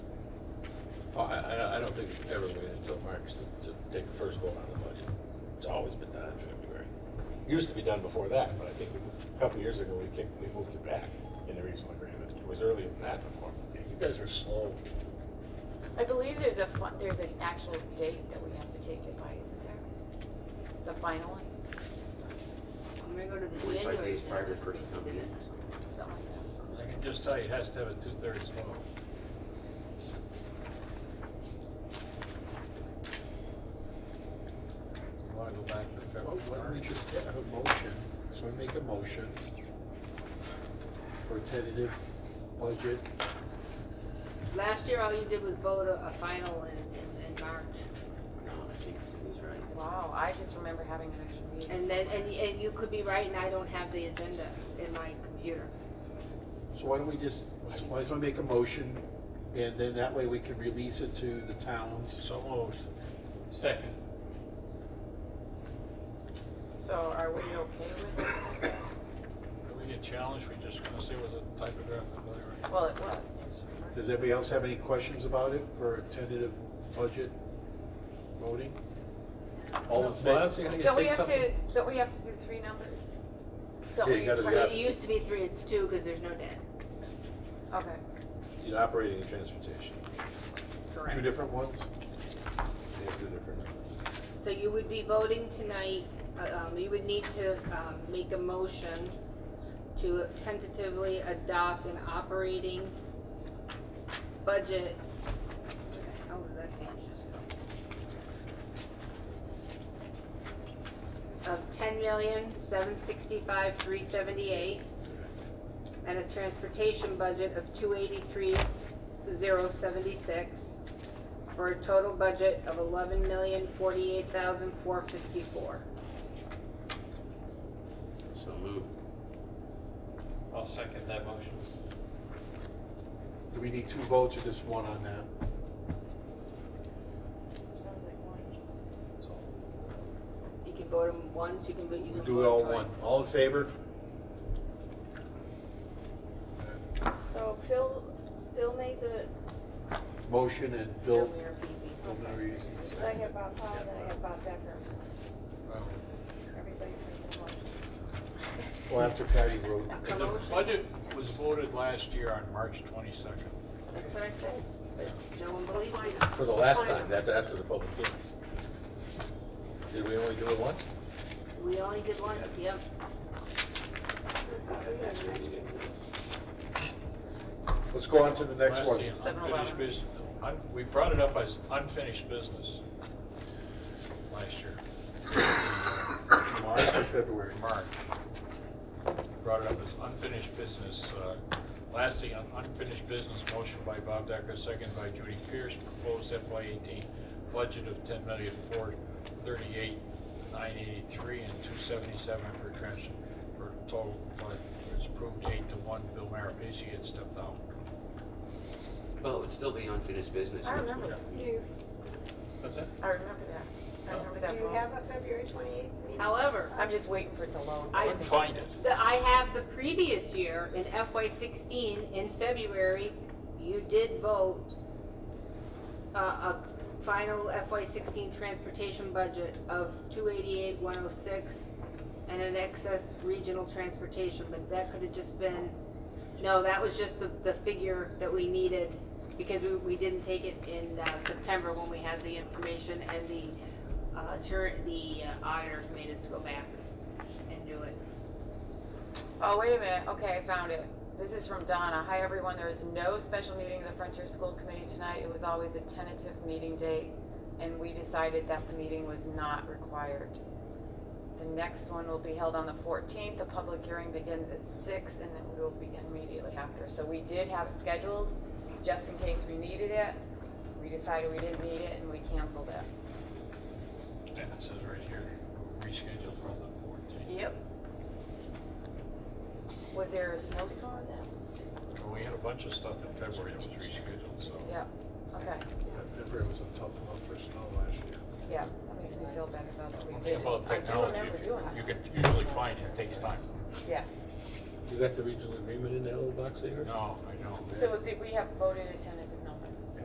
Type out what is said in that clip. Well, Oh, I, I, I don't think we've ever waited until March to, to take a first vote on the budget. It's always been done in February. It Used to be done before that, but I think a couple of years ago, we kicked, we moved it back in the regional agreement. It was earlier than that before. You guys are slow. I believe there's a, fin- there's an actual date that we have to take it by, isn't there? The final one, I'm gonna go to the Forty-five January. days thing, prior to let's see first if town they did meeting. it. something like that. I can just tell you, it has to have a two-thirds vote. You wanna go back to February? Why don't we just have a motion, so I make a motion for a tentative budget, Last year, all you did was vote a, a final in, in, in March, No, I think Sue's right. Wow, I just remember having an extra meeting. and then, and, and you could be right, and I don't have the agenda in my computer. so why don't we just, so why don't we make a motion, and then that way we can release it to the towns. So moved. Second. So are we okay with this? as well? If we get challenged, we just gonna see what the typographical error. Well, it was. Does anybody else have any questions about it for a tentative budget voting? All in Well, I favor? was thinking you Don't we take have something- to, don't we have to do three numbers? Don't Yeah, you we- gotta be up. It used to be three, it's two, cause there's no debt. Okay. You're operating in transportation. Two different ones? They have two different numbers. So you would be voting tonight, uh, um, you would need to, um, make a motion to tentatively adopt an operating budget. Where the hell did that page just go? Of ten million, seven sixty-five, three seventy-eight, and a transportation budget of two eighty-three, zero seventy-six for a total budget of eleven million forty-eight thousand four fifty-four. So moved. I'll second that motion. Do we need two votes or just one on that? You can vote them once, you can vote, you We can do it all vote one. twice. All in favor? So Phil, Phil made the Motion and Bill Bill, Mayor-Pizzi. Bill Maurice in second. second Bob Powell, then I had Bob Decker. Wow. Everybody's making a motion. Well, after Patty wrote, A The motion. budget was voted last year on March twenty-second. That's what I said, but no one believes me. For the last time, that's after the public hearing. Did we only do it once? We only did one, yep. let's go on to the next one. Last thing, unfinished business, un- we brought it up as unfinished business last year. March or February? March. Brought it up as unfinished business. uh, Last thing, on unfinished business, motion by Bob Decker, second by Judy Pierce, proposed FY eighteen budget of ten million, four thirty-eight, nine eighty-three, and two seventy-seven for trans, for total, but it's approved eight to one. Bill Marapesi had stepped out. Well, it would Oh, still be unfinished business. I remember that. Do, That's it? I remember Oh. that. I remember that do you vote. have a February twenty-eighth meeting? However, I'm just waiting for it to load. I- Couldn't find it. the, I have the previous year in FY sixteen, in February, you did vote uh, a final FY sixteen transportation budget of two eighty-eight, one oh six, and an excess regional transportation, but that could have just been, no, that was just the, the figure that we needed, because we, we didn't take it in, uh, September when we had the information and the, uh, tur- the uh, auditors made us go back and do it. Oh, wait a minute. Okay, I found it. This is from Donna. Hi, everyone. There is no special meeting of the Frontier School Committee tonight. It was always a tentative meeting date, and we decided that the meeting was not required. The next one will be held on the 14th. The public hearing begins at 6, and then we will begin immediately after. So we did have it scheduled, just in case we needed it. We decided we didn't need it, and we canceled it. And it says right here, rescheduled from the fourteenth. Yep. Was there a snowstorm then? We had a bunch of stuff in February that was rescheduled, so. Yep. Okay. February was a tough month for snow last year. Yeah, that makes me feel better about what we One did. thing about I do technology, remember if you, doing you that. can usually find it, it takes time. Yeah, You got the regional agreement in that little box of yours? No, I know. so if we have voted a tentative number.